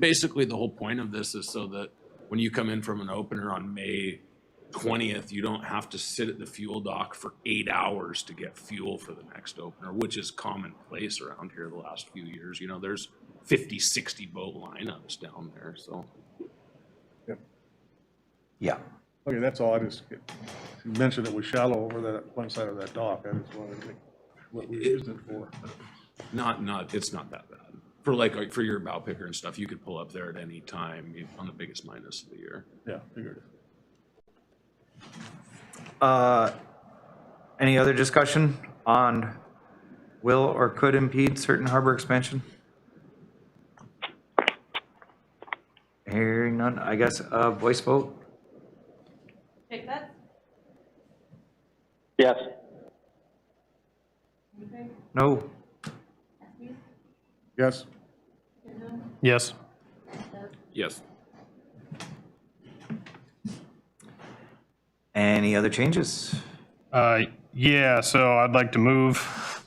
Basically, the whole point of this is so that when you come in from an opener on May twentieth, you don't have to sit at the fuel dock for eight hours to get fuel for the next opener, which is commonplace around here the last few years. You know, there's 50, 60 boat lineups down there, so. Yeah. Okay, that's all, I just, you mentioned it was shallow over that, one side of that dock, I just wanted to think what we used it for. Not, not, it's not that bad. For like, like, for your bow picker and stuff, you could pull up there at any time you- on the biggest minus of the year. Yeah, figured it. Uh, Any other discussion on will or could impede certain harbor expansion? Hearing none, I guess, uh, voice vote? Pickett? Yes. Meeker? No. Estes? Yes, Chisholm? Yes. Doug? Yes. Any other changes? Uh, Yeah, so I'd like to move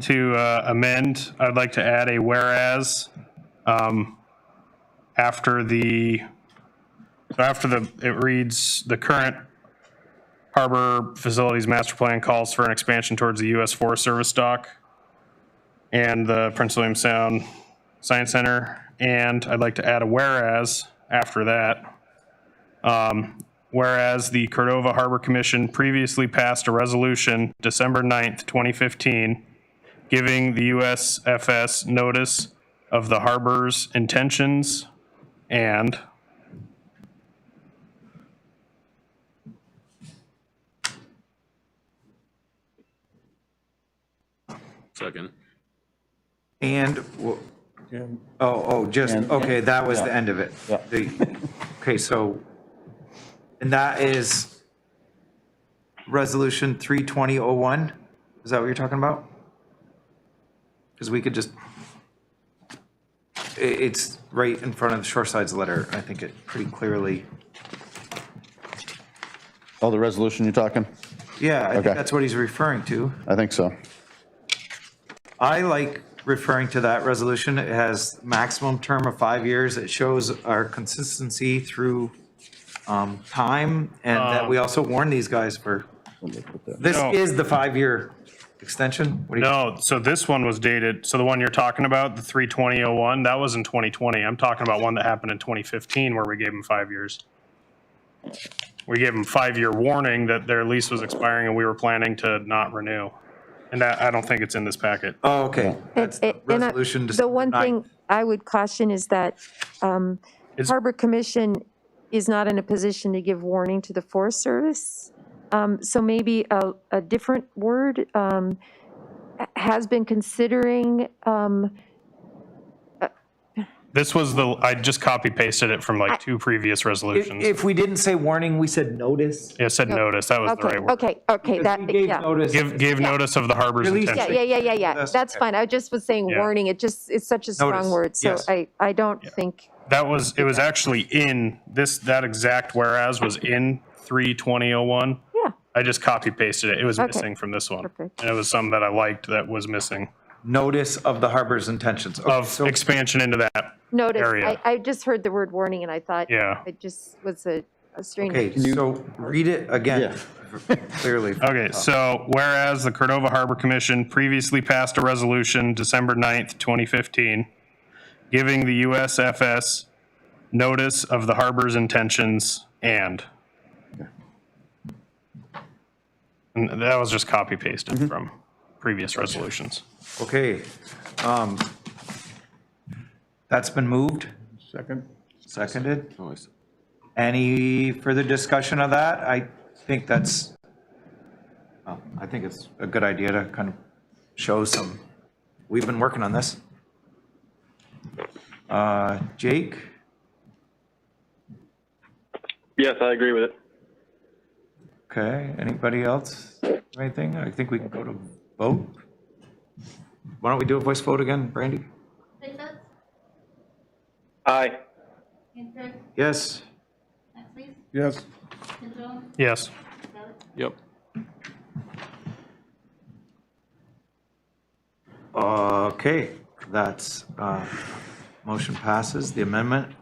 to uh, amend, I'd like to add a whereas um, after the, so after the, it reads, the current harbor facilities master plan calls for an expansion towards the U.S. Forest Service dock and the Prince William Sound Science Center, and I'd like to add a whereas after that. Um, Whereas the Cordova Harbor Commission previously passed a resolution December 9th, 2015, giving the USFS notice of the harbor's intentions and, Second. And, w- and oh, oh, just, okay, that was the end of it. Yeah. The- Okay, so, and that is resolution 32001? Is that what you're talking about? Because we could just, i- it's right in front of the Shoreside's letter. I think it pretty clearly, Oh, the resolution you're talking? yeah, I Okay. think that's what he's referring to. I think so. I like referring to that resolution. It has maximum term of five years. It shows our consistency through um, time and that we also warn these guys for, this Um, No. is the five-year extension? What do you- no, so this one was dated, so the one you're talking about, the 32001, that was in 2020. I'm talking about one that happened in 2015 where we gave them five years. We gave them five-year warning that their lease was expiring and we were planning to not renew. And that, I don't think it's in this packet. Oh, okay. And- That's the and- and I- resolution The December one 9th. thing I would caution is that um, Is- Harbor Commission is not in a position to give warning to the Forest Service. Um, So maybe a, a different word um, has been considering, um, This was the, I just copy pasted it from like two previous If resolutions. if we didn't say warning, we said notice. It said notice, that was the okay, right word. okay, okay, Because that, we gave yeah. notice. Give, give notice of the harbor's Release- yeah, Yeah, intention. yeah, yeah, yeah, yeah, That's that's okay. fine. I just was saying Yeah. warning, it just, it's such a Notice, strong word, so yes. I, I don't think, That was, it was actually in, this, that exact whereas was in 32001. yeah, I just copy pasted it. It was Okay. missing from this one. Perfect. And it was some that I liked that was missing Notice of the harbor's intentions. Okay, of so- expansion into that. notice. Area. I, I just heard the word warning and I thought Yeah. it just was a a strange. Okay, so read it again, clearly. Okay, so whereas the Cordova Harbor Commission previously passed a resolution December 9th, 2015, giving the USFS notice of the harbor's intentions and. And that was just copy pasted from previous resolutions. Okay. um, That's been moved, second, seconded. Always. Any further discussion of that? I think that's, well, I think it's a good idea to kind of show some, we've been working on this. Uh, Jake, Yes, I agree with it. okay, anybody else, have anything? I think we can go to vote. Why don't we do a voice vote again, Brandy? Pickett? Aye. Meeker? Yes? Estes? yes, Chisholm? Yes. Doug? Yep. Okay, that's uh, Motion passes. The amendment